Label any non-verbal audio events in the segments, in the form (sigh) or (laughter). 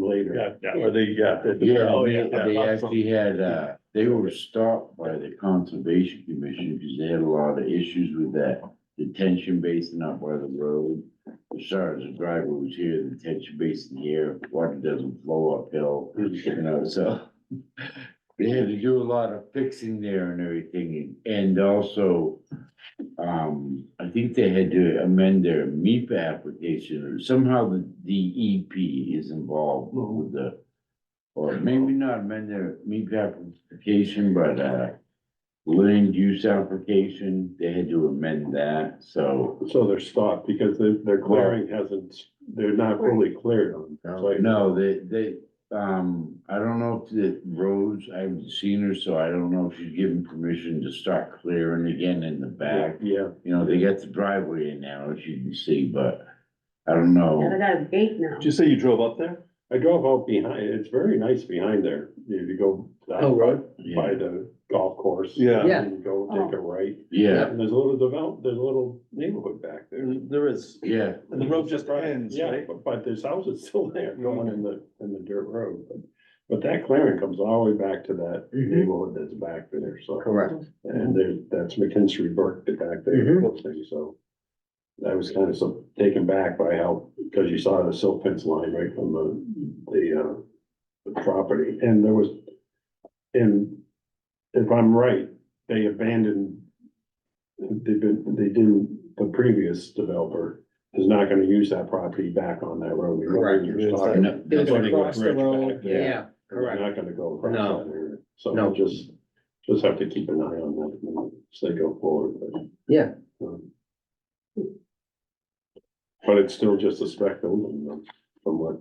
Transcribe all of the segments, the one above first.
later. Yeah, yeah, or they, yeah. they- Yeah, oh, they- they yeah. actually had, uh, they were stopped by the Conservation Commission because they had a lot of issues with that detention basin up by the road. As far as the driver was here, the detention basin here, water doesn't flow uphill, you know, so. They had to do a lot of fixing there and everything, and also, um, I think they had to amend their MEPA application, or somehow the DEP is involved with the or maybe not amend their MEP application, but, uh, land use application, they had to amend that, so. So they're stopped because their, their clearing hasn't, they're not fully cleared on. so- No, they, they, um, I don't know if the roads, I haven't seen her, so I don't know if she's given permission to start clearing again in the back. Yeah, You know, they got the driveway in now, as you can see, but I don't know. Yeah, they got a gate now. did you say you drove up there? I drove out behind, it's very nice behind there, if you go. Oh, right. By the golf course. Yeah. Yeah. And go take a right, Yeah, and there's a little develop, there's a little neighborhood back there. There is, yeah, and the road just ends, Yeah, right? Mm-hmm. but, but there's houses still there going in the, in the dirt road, but, but that clearing comes all the way back to that Mhm. Mm-hmm. neighborhood that's back there, so. Correct. And there, that's McKinstry Burke that back there, Mm-hmm. Mhm. closing, so. I was kind of so taken back by how, because you saw the silk fence line right from the, the, uh, the property, and there was, and if I'm right, they abandoned, they've been, they didn't, the previous developer is not gonna use that property back on that road. Correct. You're It's talking- no, It that's was what I got. across the road, Yeah. yeah, They're correct. not gonna go across No. that area, so No. just, just have to keep an eye on that as they go forward, but. Yeah. Um, But it's still just a spec building, though, from what,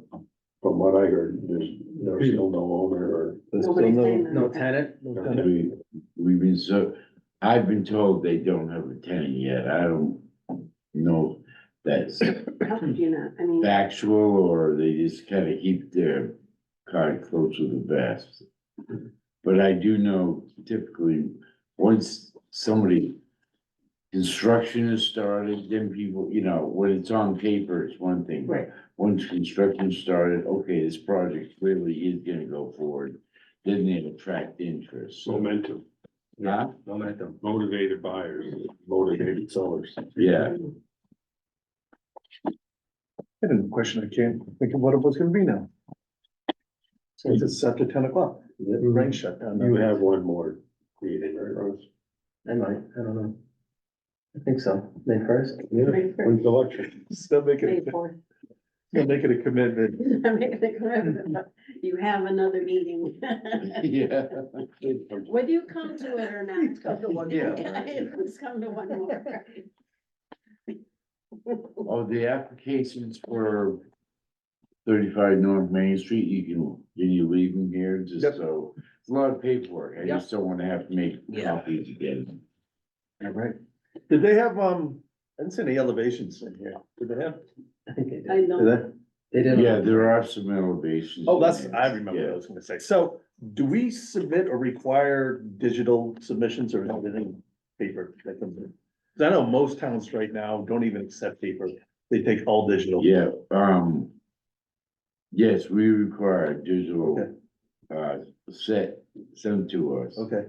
from what I heard, there's, there's still no owner or. There's still Nobody's no- saying that. No tenant, no tenant. We, we've been so, I've been told they don't have a tenant yet, I don't know if that's How could you not? I mean, factual, or they just kinda keep their card close to the vest. But I do know typically, once somebody, construction is started, then people, you know, when it's on paper, it's one thing. but right, once construction started, okay, this project clearly is gonna go forward, then it attract interest. So, Momentum, yeah, Momentum. motivated buyers, motivated sellers. yeah, (laughs) I had a question I came thinking, what it was gonna be now? Since it's after ten o'clock, the Mm-hmm. rain shut down. You have one more meeting, right, Ross? I might, I don't know. I think so, May first. Yeah. May first, When's the lecture? Still (laughs) making, May it- fourth. still making a (laughs) commitment. I mean, they could have- (laughs) You have another meeting. (laughs) yeah. Whether you come to it or not. Come to (laughs) one more. Just come to one more. Oh, the applications for thirty-five North Main Street, you can, can you leave them here, Yep. just so, it's a lot of paperwork, I just don't wanna have to make Yeah. copies again. All right. Did they have, um, I didn't see any elevations in here. Did they have? I think they did. I Did know. they? They didn't. Yeah, there are some elevations. Oh, that's, in there. I remember what I Yeah. was gonna say. So do we submit or require digital submissions or is everything paper that comes in? Cause I know most towns right now don't even accept paper. They take all digital. Yeah, um. Yes, we require a digital, uh, set sent to us. Okay.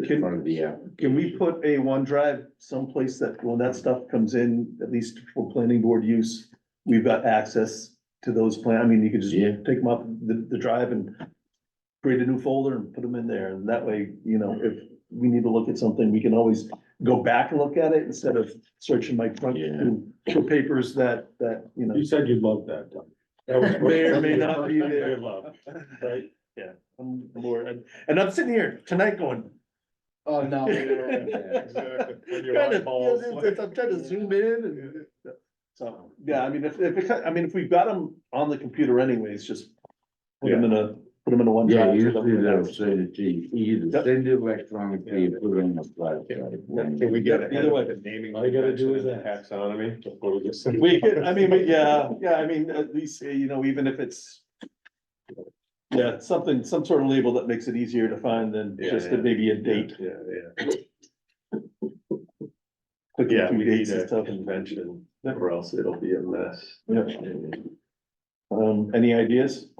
As Can- part of the app. Can we put a OneDrive someplace that when that stuff comes in, at least for planning board use, we've got access to those plan, I mean, you could just Yeah. take them up the, the drive and create a new folder and put them in there, and that way, you know, if we need to look at something, we can always go back and look at it instead of searching my front Yeah. for papers that, that, you know. You said you'd love that, Doug. That was- May or may not be there. You'd love, right? (laughs) I'm bored, and- and I'm sitting here tonight going, Oh, no. (laughs) When you're Kind of, eyeballs- yeah, it's- I'm trying to zoom in and. So, yeah, I mean, if, if, it- I mean, if we've got them on the computer anyways, just put them in a, put them in a one Yeah, drive. usually they'll send it to you, either Yep. send it electronically or put it on the flash drive. we get ahead of the naming? All you gotta do is that taxonomy before we get. We could, I mean, we- yeah, yeah, I mean, at least, uh, you know, even if it's. Yeah, something, some sort of label that makes it easier to find than Yeah, just yeah. maybe a date. Yeah, yeah. clicking Yeah, through we dates need and a stuff. convention, or else it'll be a mess. Yeah. Um, any ideas?